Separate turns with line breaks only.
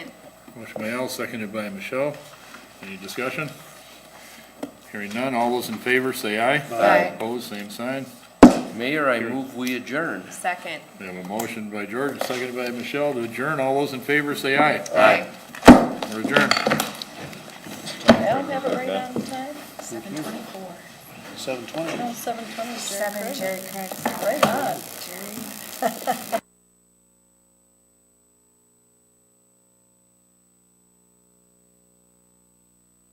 Motion by Al, seconded by Michelle. Any discussion? Hearing none, all those in favor say aye.
Aye.
Opposed, same sign.
Mayor, I move we adjourn.
Second.
We have a motion by George, seconded by Michelle to adjourn. All those in favor say aye.
Aye.
We're adjourned.
I'll have it right on time,
Seven twenty-four.
Seven twenty.
no, seven twenty, Jerry
Seven,
Craig.
Jerry Craig.
Right on.
Jerry.